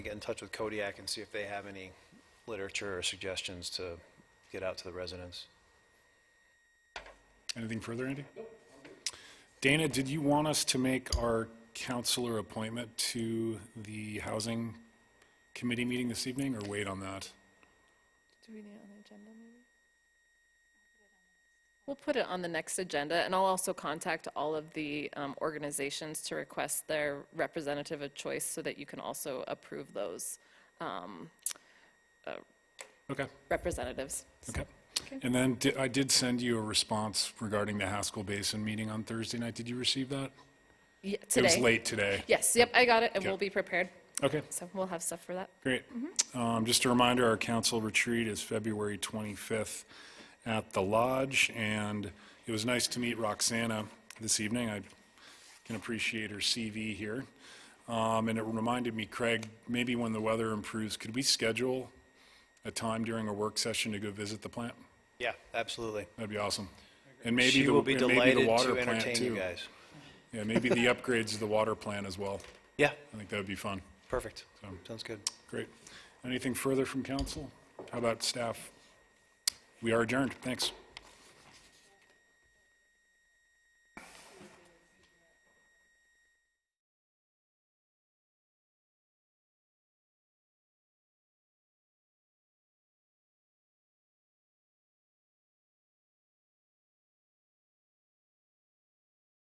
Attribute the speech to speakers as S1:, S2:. S1: touch with Kodiak and see if they have any literature or suggestions to get out to the residents.
S2: Anything further, Andy? Dana, did you want us to make our counselor appointment to the Housing Committee meeting this evening, or wait on that?
S3: Do we need it on the agenda maybe?
S4: We'll put it on the next agenda, and I'll also contact all of the um, organizations to request their representative of choice so that you can also approve those um,
S2: Okay,
S4: representatives.
S2: okay. And then di- I did send you a response regarding the Haskell Basin meeting on Thursday night. Did you receive that?
S4: Yeah,
S2: It was
S4: today.
S2: late today.
S4: Yes, yep, I got it, and
S2: Okay.
S4: we'll be prepared.
S2: Okay.
S4: So we'll have stuff for that.
S2: Great. Um, Just a reminder, our council retreat is February 25th at the Lodge, and it was nice to meet Roxana this evening. I can appreciate her CV here. Um, And it reminded me, Craig, maybe when the weather improves, could we schedule a time during a work session to go visit the plant?
S1: Yeah, absolutely.
S2: That'd be awesome. And maybe
S1: She
S2: the-
S1: will be
S2: and maybe the
S1: delighted
S2: water
S1: to
S2: plant
S1: entertain you
S2: too.
S1: guys.
S2: Yeah, maybe the upgrades to the water plant as well.
S1: Yeah,
S2: I think that would be fun.
S1: perfect. Sounds good.
S2: Great. Anything further from council? How about staff? We are adjourned. Thanks.